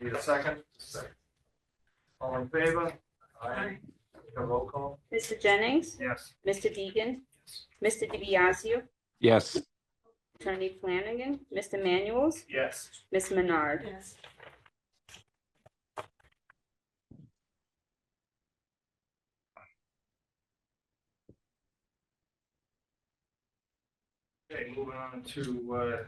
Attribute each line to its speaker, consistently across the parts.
Speaker 1: Need a second? Second. All in favor?
Speaker 2: Aye.
Speaker 1: A roll call?
Speaker 3: Mr. Jennings,
Speaker 1: Yes.
Speaker 3: Mr. Deegan, Mr. DiBiaseu,
Speaker 4: yes,
Speaker 3: Attorney Flanagan, Mr. Manuel's,
Speaker 1: Yes.
Speaker 3: Ms. Menard.
Speaker 2: Yes.
Speaker 1: Okay, moving on to uh,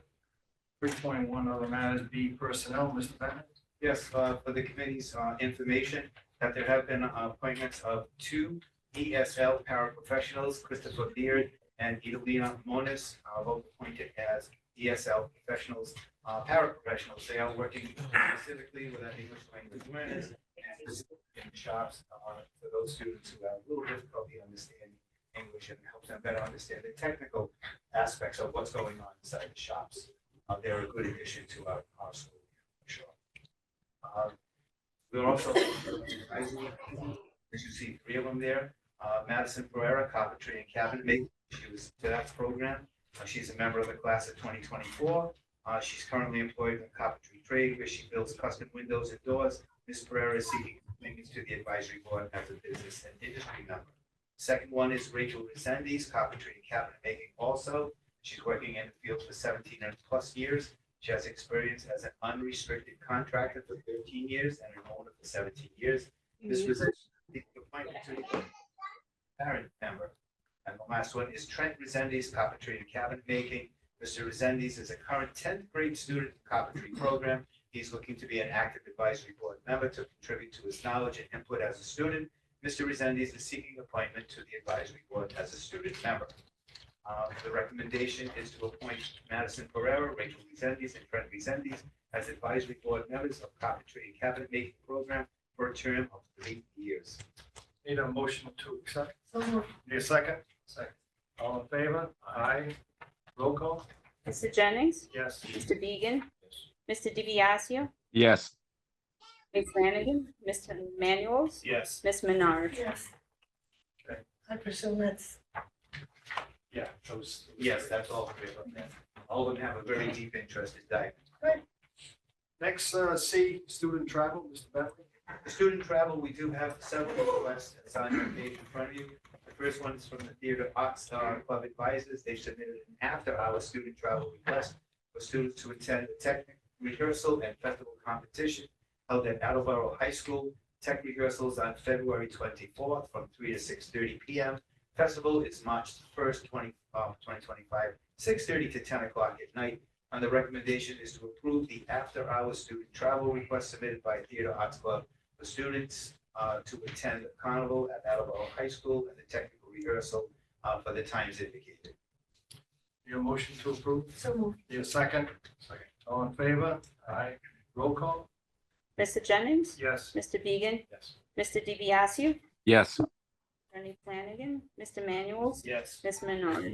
Speaker 1: three point one, other matters, B personnel, Mr. Bennett?
Speaker 5: Yes, uh, for the committee's uh, information, that there have been uh, appointments of two ESL paraprofessionals, Christopher Beard and Edelina Monis, uh, both appointed as ESL professionals, uh, paraprofessionals. They are working specifically with our English language learners and specifically in shops uh, for those students who have a little difficulty understanding English and help them better understand the technical aspects of what's going on inside the shops. Uh, They're a good addition to our our school, for sure. Um, We're also, as you see, three of them there, Uh, Madison Pereira, carpentry and cabinet making, she was to that program. Uh, She's a member of the class of twenty twenty-four. Uh, She's currently employed in the carpentry trade where she builds custom windows and doors. Ms. Pereira is seeking appointments to the advisory board as a business and industry member. Second one is Rachel Resendes, carpentry and cabinet making also. She's working in the field for seventeen and plus years. She has experience as an unrestricted contractor for thirteen years and an owner for seventeen years. This was the appointment to parent member. And the last one is Trent Resendes, carpentry and cabinet making. Mr. Resendes is a current tenth grade student in the carpentry program. He's looking to be an active advisory board member to contribute to his knowledge and input as a student. Mr. Resendes is seeking appointment to the advisory board as a student member. Uh, The recommendation is to appoint Madison Pereira, Rachel Resendes, and Fred Resendes as advisory board members of Coventry and Cabinet Making Program for a term of three years.
Speaker 1: Need a motion to accept?
Speaker 2: So moved.
Speaker 1: Need a second? Second. All in favor? Aye. Roll call?
Speaker 3: Mr. Jennings,
Speaker 1: Yes.
Speaker 3: Mr. Deegan, Mr. DiBiaseu,
Speaker 4: yes,
Speaker 3: Ms. Flanagan, Mr. Manuel's,
Speaker 1: Yes.
Speaker 3: Ms. Menard.
Speaker 2: Yes.
Speaker 1: Okay.
Speaker 2: I presume that's,
Speaker 1: Yeah, those.
Speaker 5: Yes, that's all three of them. All of them have a very deep interest in diving.
Speaker 1: Next, uh, C, student travel, Mr. Bentley?
Speaker 5: Student travel, we do have several requests that's on your page in front of you. The first one is from the Theater Arts uh, Club Advisors. They submitted an after-hour student travel request for students to attend the tech rehearsal and festival competition held at Attleboro High School. Tech rehearsals on February twenty-fourth from three to six thirty P M. Festival is March first, twenty, um, twenty twenty-five, six thirty to ten o'clock at night. And the recommendation is to approve the after-hour student travel request submitted by Theater Arts Club for students uh, to attend the carnival at Attleboro High School and the technical rehearsal uh, for the times indicated.
Speaker 1: Need a motion to approve?
Speaker 2: so moved.
Speaker 1: Need a second?
Speaker 5: Second.
Speaker 1: All in favor? Aye. Roll call?
Speaker 3: Mr. Jennings,
Speaker 1: Yes.
Speaker 3: Mr. Deegan,
Speaker 1: Yes.
Speaker 3: Mr. DiBiaseu,
Speaker 4: yes,
Speaker 3: Attorney Flanagan, Mr. Manuel's,
Speaker 1: Yes.
Speaker 3: Ms. Menard.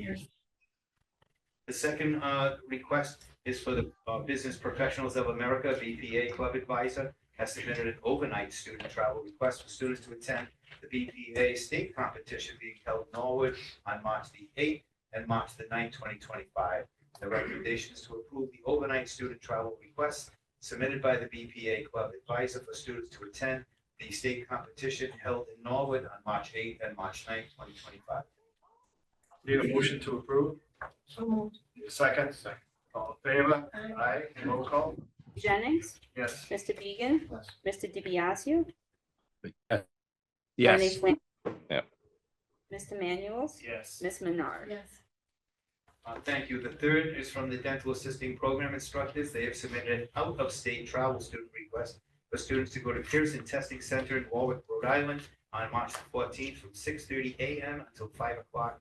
Speaker 5: The second uh, request is for the uh, Business Professionals of America, BPA Club Advisor, has submitted an overnight student travel request for students to attend the BPA state competition being held in Norwood on March the eighth and March the 9th, twenty twenty-five. The recommendation is to approve the overnight student travel request submitted by the BPA Club Advisor for students to attend the state competition held in Norwood on March eighth and March 9th, twenty twenty-five.
Speaker 1: Need a motion to approve?
Speaker 2: So moved.
Speaker 1: Need a second? Second. All in favor?
Speaker 2: Aye.
Speaker 1: Aye. Roll call?
Speaker 3: Jennings,
Speaker 1: Yes.
Speaker 3: Mr. Deegan,
Speaker 1: Yes.
Speaker 3: Mr. DiBiaseu, Attorney
Speaker 4: yes,
Speaker 3: Flanagan.
Speaker 4: Yep.
Speaker 3: Mr. Manuel's,
Speaker 1: Yes.
Speaker 3: Ms. Menard.
Speaker 2: Yes.
Speaker 5: Uh, thank you. The third is from the dental assisting program instructors. They have submitted an out-of-state travel student request for students to go to Pearson Testing Center in Warwick, Rhode Island on March fourteenth from six thirty AM until five o'clock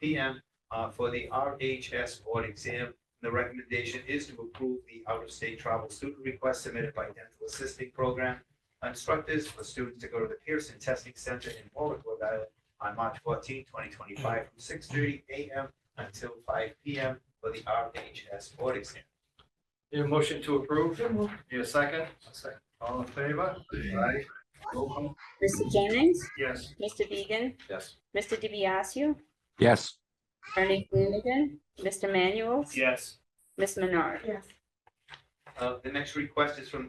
Speaker 5: PM uh, for the RHS board exam. The recommendation is to approve the out-of-state travel student request submitted by dental assisting program instructors for students to go to the Pearson Testing Center in Warwick, Rhode Island on March fourteenth, twenty twenty-five from six thirty AM until five P M for the R H S board exam.
Speaker 1: Need a motion to approve?
Speaker 2: So moved.
Speaker 1: Need a second? Second. All in favor? Aye. Roll call?
Speaker 3: Mr. Jennings,
Speaker 1: Yes.
Speaker 3: Mr. Deegan,
Speaker 5: Yes.
Speaker 3: Mr. DiBiaseu,
Speaker 4: yes,
Speaker 3: Attorney Flanagan, Mr. Manuel's,
Speaker 1: Yes.
Speaker 3: Ms. Menard.
Speaker 2: Yes.
Speaker 5: Uh, the next request is from